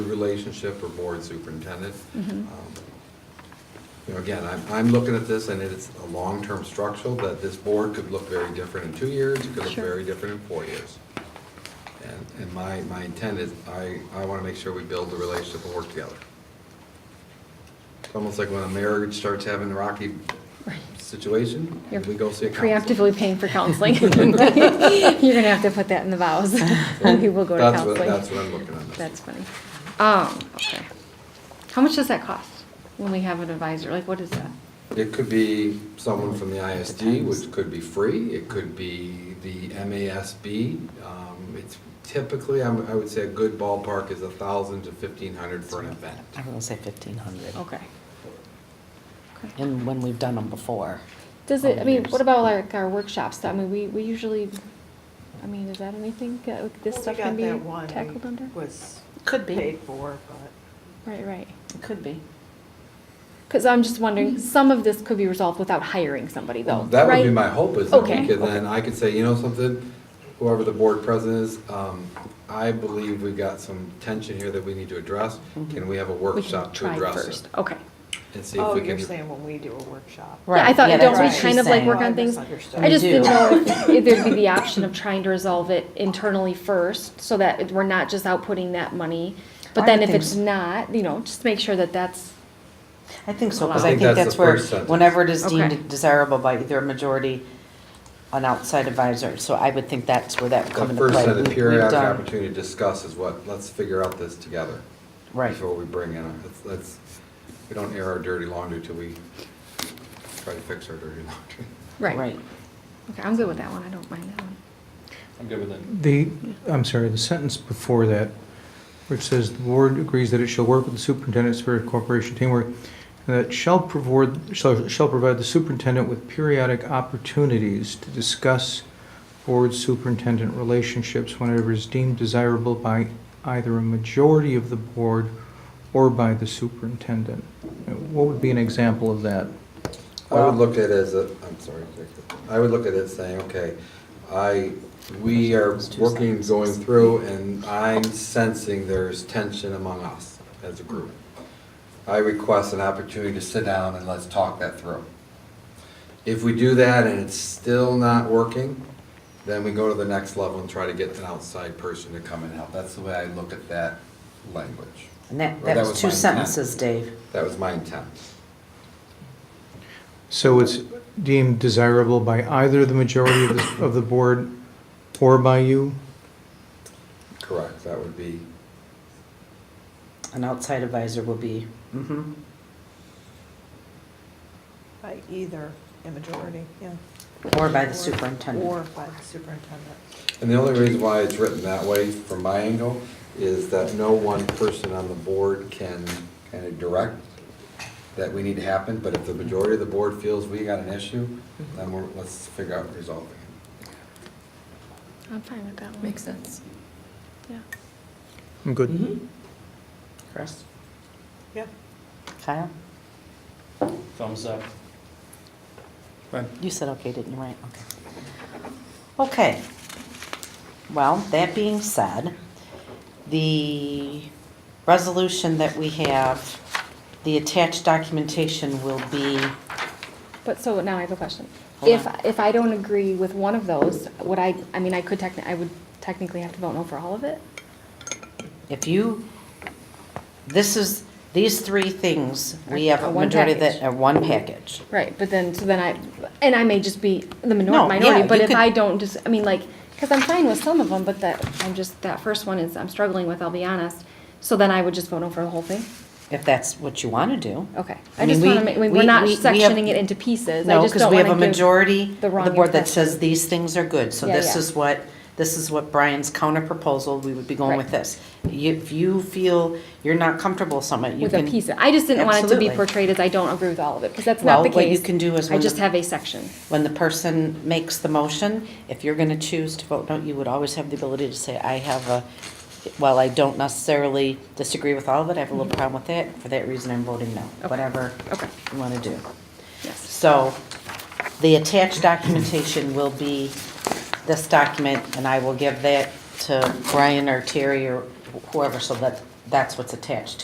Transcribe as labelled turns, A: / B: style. A: relationship or board superintendent.
B: Mm-hmm.
A: Um, You know, again, I'm, I'm looking at this and it's a long-term structural that this board could look very different in two years, it could look
B: Sure.
A: very different in four years. And, and my, my intent is, I, I want to make sure we build the relationship and work together. It's almost like when a marriage starts having a rocky situation,
B: You're
A: we go see a counselor.
B: Preemptively paying for counseling. You're gonna have to put that in the vows. We will go to
A: That's what-
B: counseling.
A: That's what I'm looking at.
B: That's funny. Um, okay. How much does that cost when we have an advisor? Like, what is that?
A: It could be someone from the ISD, which could be free, it could be the MASB. Um, It's typically, I'm- I would say a good ballpark is a thousand to fifteen hundred for an event.
C: I'm gonna say fifteen hundred.
B: Okay. Okay.
C: And when we've done them before.
B: Does it, I mean,
C: Volunteers.
B: what about like our workshops? I mean, we, we usually, I mean, is that anything that like, this
D: Well, we
B: stuff can
D: got
B: be
D: that one we
B: tackled under?
D: Was
C: Could be.
D: paid for, but
B: Right, right.
C: It could be.
B: Because I'm just wondering, some of this could be resolved without hiring somebody though,
A: That would be
B: right?
A: my hope is that
B: Okay.
A: we could then, I could say, you know something, whoever the board president is, um, I believe we've got some tension here that we need to address. Can we have a
B: Mm-hmm. We can
A: workshop to
B: try
A: address
B: first.
A: it?
B: Okay.
A: And see if
D: oh,
A: we
D: you're
A: can.
D: saying when we do a workshop.
B: Yeah, I
C: Right,
B: thought,
C: yeah,
B: don't
C: that's
B: we
C: what
B: kind
C: she's
B: of like
C: saying.
B: work
D: Oh, I
B: on things?
D: misunderstood.
B: I just
C: We
B: didn't
C: do.
B: know if if there'd be the option of trying to resolve it internally first, so that it- we're not just outputting that money. But
C: I
B: then
C: would
B: if
C: think
B: it's
C: so.
B: not, you know, just make sure that that's,
C: I think so,
B: I
C: because I
A: think
C: think
A: that's
C: that's
A: the
C: where,
A: first sentence.
C: whenever it is
B: Okay.
C: deemed desirable by either a majority, an outside advisor, so I would think that's where that would come
A: The
C: into play.
A: first, set of
C: We- we've
A: periodic
C: done-
A: opportunity to discuss is what, let's figure out this together.
C: Right,
A: Before we bring in, a- let's- let's, we don't air our dirty laundry till we try to fix our dirty laundry.
B: right.
C: right.
B: Okay, I'm good with that one, I don't mind that one.
A: I'm good with that.
E: The, I'm sorry, the sentence before that, which says, "The board agrees that it shall work with the superintendent, spirit of cooperation, teamwork, and that shall provide, shall shall provide the superintendent with periodic opportunities to discuss board-superintendent relationships whenever is deemed desirable by either a majority of the board or by the superintendent." Uh, What would be an example of that?
A: I
C: Um,
A: would look at it as a, I'm sorry, Jacob. I would look at it saying, okay, I, we are working, going through, and I'm sensing there's tension among us as a group. I request an opportunity to sit down and let's talk that through. If we do that and it's still not working, then we go to the next level and try to get an outside person to come and help. That's the way I look at that language.
C: And that,
A: Or
C: that
A: that
C: was
A: was
C: two
A: my
C: sentences, Dave.
A: That was my intent.
E: So it's deemed desirable by either the majority of the, of the board or by you?
A: Correct, that would be,
C: An outside advisor will be, mhm.
D: By either, a majority, yeah.
C: or by the superintendent.
D: Or by the superintendent.
A: and the only reason why it's written that way from my angle is that no one person on the board can kind of direct that we need to happen, but if the majority of the board feels we got an issue, then we're, let's figure out resolving it.
B: I'm fine with that one.
F: Makes sense.
B: Yeah.
E: I'm good.
C: Mhm. Chris,
D: Yeah,
C: Kyle,
G: Thumbs up.
C: you said okay, didn't you, right? Okay. Okay. Well, that being said, the resolution that we have, the attached documentation will be,
B: But so now I have a question.
C: Hold
B: If,
C: on.
B: if I don't agree with one of those, would I, I mean, I could techni, I would technically have to vote no for all of it?
C: if you, this is, these three things, we
B: Are-
C: have
B: are
C: a
B: one
C: majority that
B: package.
C: are one package.
B: Right, but then, so then I, and I may just be the
C: No,
B: minor-
C: yeah,
B: minority, but
C: you
B: if
C: could-
B: I don't just, I mean, like, because I'm fine with some of them, but that, I'm just, that first one is, I'm struggling with, I'll be honest. So then I would just vote no for the whole thing?
C: If that's what you want to do.
B: Okay.
C: I
B: I just
C: mean,
B: want to
C: we-
B: make, we're
C: we-
B: not
C: we- we have-
B: sectioning it into pieces. I
C: No,
B: just
C: because
B: don't
C: we have a
B: wanna give-
C: majority,
B: the
C: the
B: wrong
C: board that
B: impression.
C: says these things are good, so
B: Yeah,
C: this
B: yeah.
C: is what, this is what Brian's counter proposal, we would be going with
B: Right.
C: this. You- If you feel you're not comfortable with something, you
B: With a
C: can.
B: piece. of- I just didn't want it to be
C: Absolutely.
B: portrayed as I don't agree with all of it, because that's not the
C: Well,
B: case.
C: what you can do is
B: I
C: when
B: just
C: the-
B: have a section.
C: When the person makes the motion, if you're gonna choose to vote no, you would always have the ability to say, I have a, while I don't necessarily disagree with all of it, I have a little problem with it, for that reason I'm voting no,
B: Okay.
C: whatever
B: Okay.
C: you wanna do.
B: Yes.
C: So the attached documentation will be this document, and I will give that to Brian or Terry or whoever, so that that's what's attached